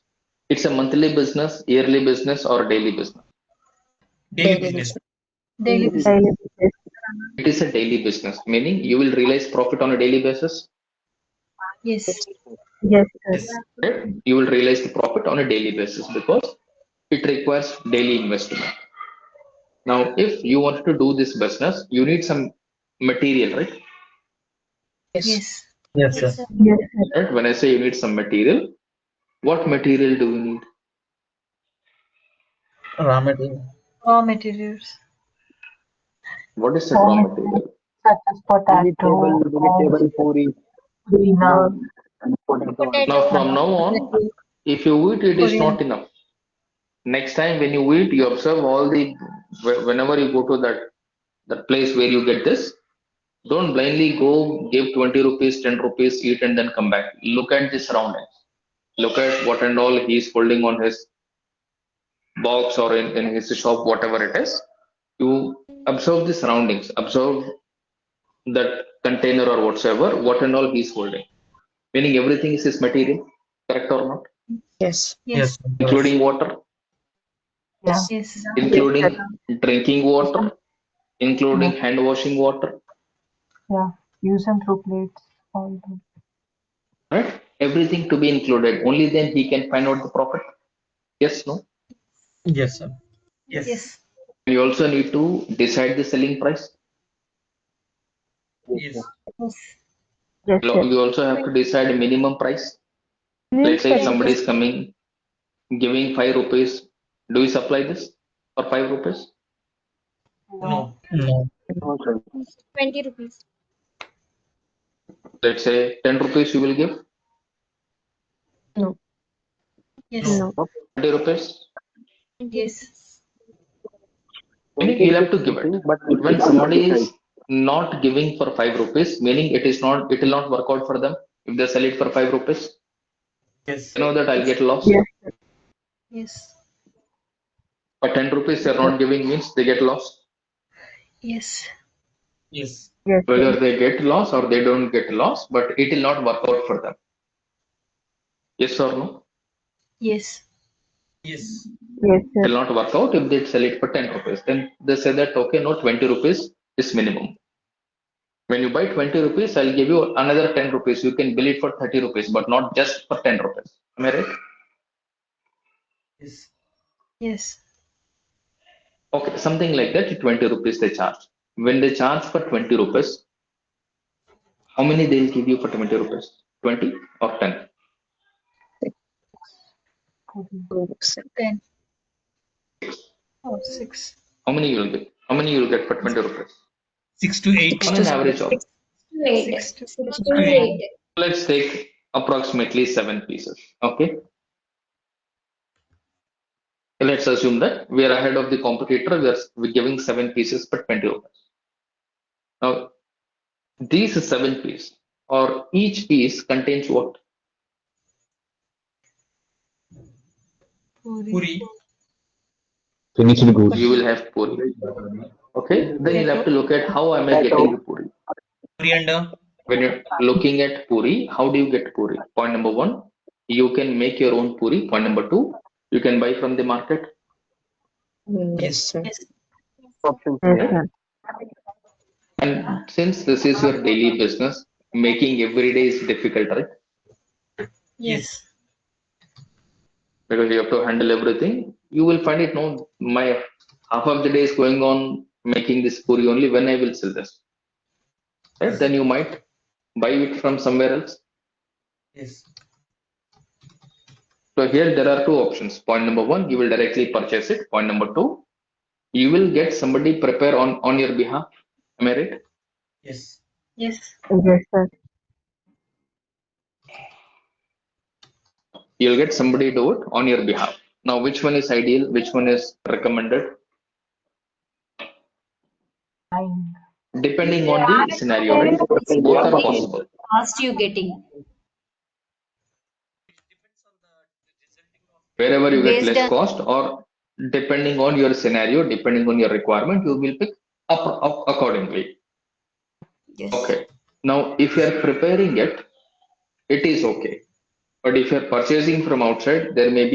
It's a monthly business, yearly business, or daily business. daily business daily business. daily basis. It is a daily business, meaning you will realize profit on a daily basis. Yes. Yes, yes. sir. right? You will realize the profit on a daily basis because it requires daily investment. Now, if you want to do this business, you need some material, right? Yes. Yes, sir. Yes, sir. Right? When I say you need some material, what material do you need? Raw material. Raw materials. What is the raw Raw material? Such as potato, eggs, tuna. Now, from now on, if you eat, it is Korean. not enough. Next time when you eat, you observe all the wh- whenever you go to that that place where you get this. Don't blindly go give 20 rupees, 10 rupees, eat and then come back. Look at the surroundings. Look at what and all he is holding on his box or in, in his shop, whatever it is. You observe the surroundings, observe that container or whatsoever, what and all he is holding. Meaning everything is his material, correct or not? Yes. Yes. sir. including water, Yeah. Yes. including drinking water, including hand washing water, Yeah. Use and throw plates. All those. right? Everything to be included. Only then he can find out the profit. Yes, no? Yes, sir. Yes. You also need to decide the selling price. Yes. Yes. Yes, Lo- yes. You also have to decide a minimum price. Let's say if somebody is coming, giving five rupees. Do you supply this for five rupees? No. No. twenty rupees. Let's say ten rupees you will give, Yes. No. twenty rupees. Yes. Meaning you'll have to give it. But when somebody is not giving for five rupees, meaning it is not, it will not work out for them if they sell it for five rupees. Yes. You know that I'll get lost. Yes. Yes. But ten rupees they're not giving means they get lost. Yes. Yes. Yes, Whether they get lost or they don't get lost, but it will not work out for them. Yes or no? Yes. Yes. yes, It sir. will not work out if they sell it for ten rupees. Then they say that okay, no, twenty rupees is minimum. When you buy twenty rupees, I'll give you another ten rupees. You can bill it for thirty rupees, but not just for ten rupees. Am I right? Yes. Yes. Okay, something like that, 20 rupees they charge. When they charge for 20 rupees, how many they'll give you for 20 rupees? 20 or 10? Ten. Oh, six. How many you'll get? How many you'll get for 20 rupees? Six to eight. On an average of, Six to Six six. to eight. let's take approximately seven pieces. Okay. Let's assume that we are ahead of the competitor. We are we're giving seven pieces per 20 rupees. Now, these seven pieces, or each piece contains what? Puri. Puri. Finished goods. you will have puri. Okay, then you'll have to look at how am I getting the puri. Coriander. When you're looking at puri, how do you get puri? Point number one, you can make your own puri. Point number two, you can buy from the market. Yes, sir. Yes. Options. Yes, sir. And since this is your daily business, making every day is difficult, right? Yes. Because you have to handle everything. You will find it no, my half of the day is going on making this puri only. When I will sell this, right? Then you might buy it from somewhere else. Yes. So here there are two options. Point number one, you will directly purchase it. Point number two, you will get somebody prepare on on your behalf. Am I right? Yes. Yes. Yes, sir. You'll get somebody do it on your behalf. Now, which one is ideal? Which one is recommended? Nine. Depending on the scenario, right? Both are possible. Fast you getting. Wherever you get Based less on- cost, or depending on your scenario, depending on your requirement, you will pick up, up accordingly. Yes. Okay. Now, if you are preparing it, it is okay. But if you are purchasing from outside, there may be